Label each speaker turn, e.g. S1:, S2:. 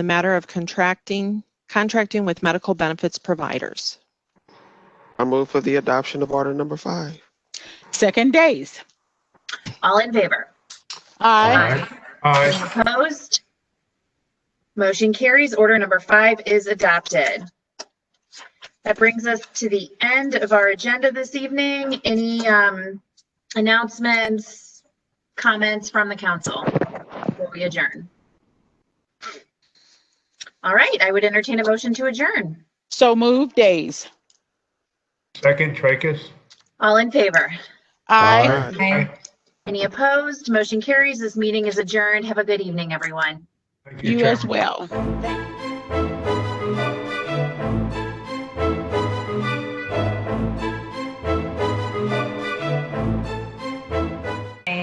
S1: the matter of contracting, contracting with medical benefits providers.
S2: I move for the adoption of order number five.
S3: Second days.
S4: All in favor?
S3: Aye.
S4: Any
S5: Aye.
S4: Opposed? Motion carries. Order number five is adopted. That brings us to the end of our agenda this evening. Any um, announcements, comments from the council before we adjourn? All right, I would entertain a motion to adjourn.
S3: So move days.
S5: Second, Tracus.
S4: All in favor?
S3: Aye.
S4: Any opposed? Motion carries. This meeting is adjourned. Have a good evening, everyone.
S5: Thank
S3: You as
S5: Chairman.
S3: well.
S4: Thank you.